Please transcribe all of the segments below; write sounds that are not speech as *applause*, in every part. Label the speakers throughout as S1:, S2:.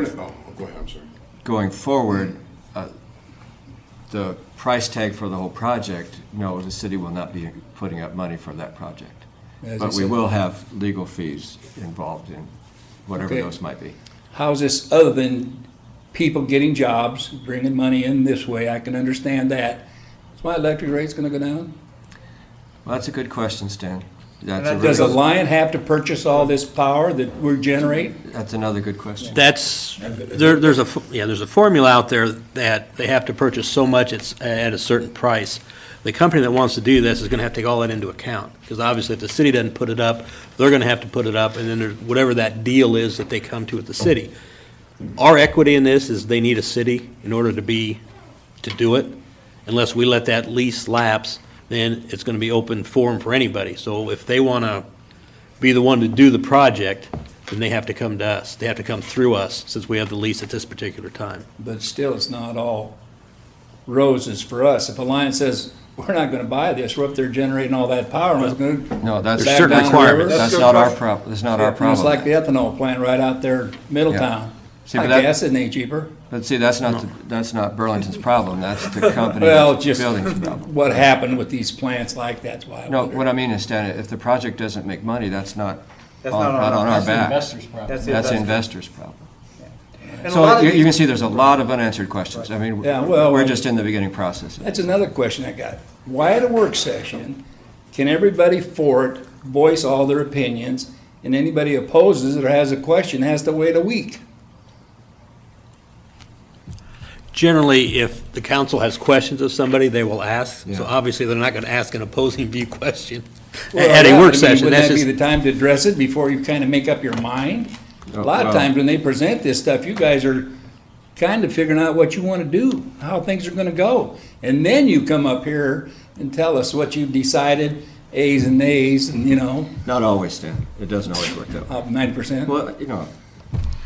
S1: forward,
S2: Oh, go ahead, I'm sorry.
S1: going forward, uh, the price tag for the whole project, no, the city will not be putting up money for that project.
S3: As I
S1: But we
S3: said-
S1: will have legal fees involved in whatever
S3: Okay.
S1: those might be.
S3: How's this other than people getting jobs, bringing money in this way? I can understand that. Is my electric rate's gonna go down?
S1: Well, that's a good question, Stan. That's a
S4: that
S3: Does
S1: really-
S3: Alliant have to purchase all this power that we're generating?
S1: That's another good question.
S4: That's, there, there's a, f- yeah, there's a formula out there that they have to purchase so much it's at a certain price. The company that wants to do this is gonna have to take all that into account, because obviously if the city doesn't put it up, they're gonna have to put it up, and then there's whatever that deal is that they come to with the city. Our equity in this is they need a city in order to be, to do it. Unless we let that lease lapse, then it's gonna be open forum for anybody. So if they wanna be the one to do the project, then they have to come to us. They have to come through us, since we have the lease at this particular time.
S3: But still, it's not all roses for us. If Alliant says, we're not gonna buy this, we're up there generating all that power, and it's gonna.
S1: No, that's.
S3: There's certain
S1: that's-
S3: requirements.
S1: That's
S2: That's a
S1: not
S2: good
S1: our
S2: question.
S1: problem, that's not our problem.
S3: It's like the ethanol plant right out there, Middletown.
S1: See,
S3: I
S1: but that-
S3: guess it ain't cheaper.
S1: But see, that's not, the- that's not Burlington's problem, that's the
S3: *laughs*
S1: company
S3: Well,
S1: that's
S3: just
S1: building's problem.
S3: what happened with these plants like that's why I
S1: No,
S3: wondered.
S1: what I mean is, Stan, if the project doesn't make money, that's not, on-
S5: That's not on
S1: not
S5: our-
S1: on our
S5: that's the
S1: back.
S5: investor's problem. That's the
S1: That's the
S5: investor's.
S1: investor's problem.
S5: And a lot
S1: So
S5: of
S1: you you
S5: these-
S1: can see there's a lot of unanswered questions. I mean,
S3: Yeah, well-
S1: we're just in the beginning process.
S3: That's another question I got. Why at a work session, can everybody for it voice all their opinions, and anybody opposes it or has a question has to wait a week?
S4: Generally, if the council has questions of somebody, they will ask.
S1: Yeah.
S4: So obviously, they're not gonna ask an opposing view *laughs* question
S3: Well,
S4: at
S3: yeah, but I
S4: a
S3: mean,
S4: work session.
S3: Wouldn't
S4: That's
S3: that be the
S4: just,
S3: time to address it before you kind of make up your mind? A
S1: Oh,
S3: lot of
S1: well.
S3: times when they present this stuff, you guys are kind of figuring out what you want to do, how things are going to go. And then you come up here and tell us what you've decided, A's and A's, and you know,
S1: Not always, Stan, it doesn't always work that way.
S3: ninety percent.
S1: Well, you know,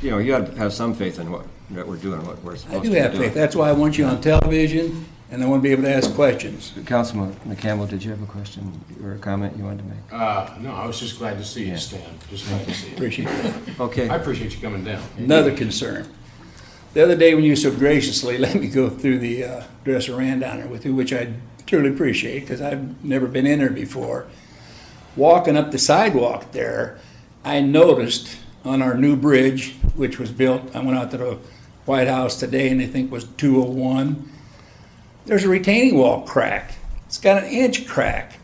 S1: you know, you gotta have some faith in what, that we're doing, what we're supposed
S3: I
S1: to
S3: do
S1: be
S3: have
S1: doing.
S3: faith. That's why I want you on television, and I want to be able to ask questions.
S1: Councilman McCampbell, did you have a question or a comment you wanted to make?
S2: Uh, no, I was just glad to see you, Stan, just glad to see you.
S3: Appreciate it.
S1: Okay.
S2: I appreciate you coming down.
S3: Another concern. The other day when you so graciously *laughs* let me go through the uh, dresser ran down there with you, which I truly appreciate because I've never been in there before. Walking up the sidewalk there, I noticed on our new bridge, which was built, I went out to the White House today and I think was 201. There's a retaining wall crack. It's got an inch crack.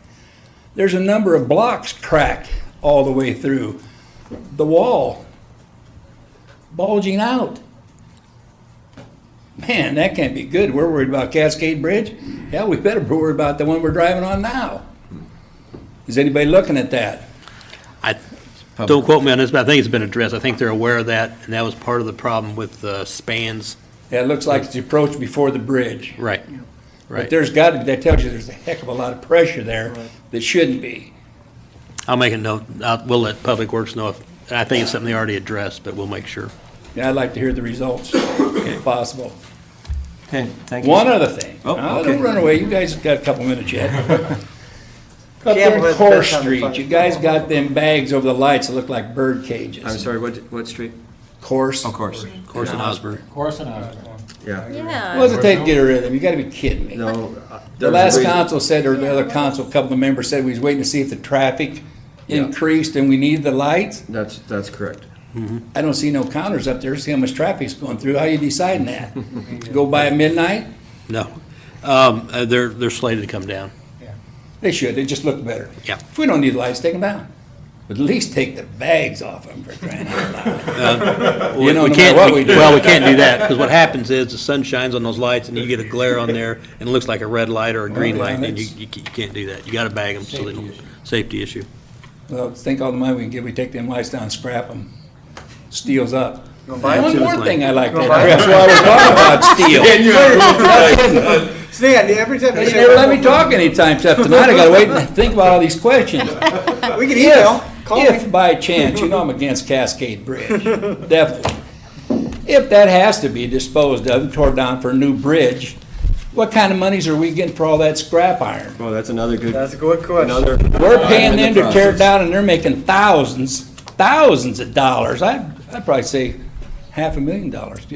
S3: There's a number of blocks cracked all the way through. The wall bulging out. Man, that can't be good. We're worried about Cascade Bridge. Yeah, we better be worried about the one we're driving on now. Is anybody looking at that?
S4: I, don't quote me on this, but I think it's been addressed. I think they're aware of that, and that was part of the problem with the spans.
S3: Yeah, it looks like it's the approach before the bridge.
S4: Right,
S3: But
S4: right.
S3: there's got to, that tells you there's a heck of a lot of pressure there that shouldn't be.
S4: I'll make a note. I'll- We'll let Public Works know if, and I think it's something they already addressed, but we'll make sure.
S3: Yeah, I'd like to hear the results if possible.
S1: Okay, thank you.
S3: One other thing.
S1: Oh,
S3: Now,
S1: okay.
S3: Don't run away. You guys have got a couple minutes
S5: *laughs*
S3: yet. Up
S5: Yeah,
S3: there
S5: but
S3: in
S5: it's
S3: Core
S5: best on the
S3: Street,
S5: front.
S3: you guys got them bags over the lights that look like bird cages.
S1: I'm sorry, what, what street?
S3: course.
S1: Of course.
S4: Course in Osborne.
S5: Corson Osborne.
S1: Yeah.
S6: Yeah.
S3: What's it take to get rid of them? You gotta be kidding me.
S1: No. uh,
S3: The
S1: there's a
S3: last
S1: reason-
S3: council said, or the other council, a couple of members said, we was waiting to see if the traffic
S1: Yeah.
S3: increased and we needed the lights.
S1: That's, that's correct.
S3: I don't see no counters up there, see how much traffic's going through. How you deciding that?
S1: *laughs*
S3: Go by at midnight?
S4: No. Um, uh, They're, they're slated to come down.
S3: They should, they just look better.
S4: Yeah.
S3: If we don't need lights, take them down. But at least take the bags off them for crying out
S1: *laughs*
S3: loud.
S4: We
S3: know,
S4: we
S3: no
S4: can't.
S3: matter what we do.
S4: Well, we can't do that, because what happens is the sun shines on those lights and you get a glare on there and it looks like a red light or a green
S3: yeah,
S4: light, and you,
S3: that's-
S4: you ca- you can't do that. You gotta bag them so they don't, safety issue.
S3: Well, think all the money we can get, we take them lights down, scrap them. Steel's up.
S1: buy it
S3: One
S1: to the
S3: more
S4: plane.
S3: thing I like that
S5: buy it.
S3: address, while we're
S1: *laughs*
S3: talking about steel.
S5: Stan, every time
S3: They
S5: you
S3: never let
S5: say,
S3: me talk anytime except tonight. I gotta wait and think about all these questions.
S5: we can email,
S3: If,
S5: call me.
S3: if by chance, you know I'm against Cascade Bridge, definitely. If that has to be disposed of and torn down for a new bridge, what kind of monies are we getting for all that scrap iron?
S1: Well, that's another good.
S5: That's a good question.
S1: Another.
S3: We're paying them to tear it down and they're making thousands, thousands of dollars. I'd, I'd probably say half a million dollars.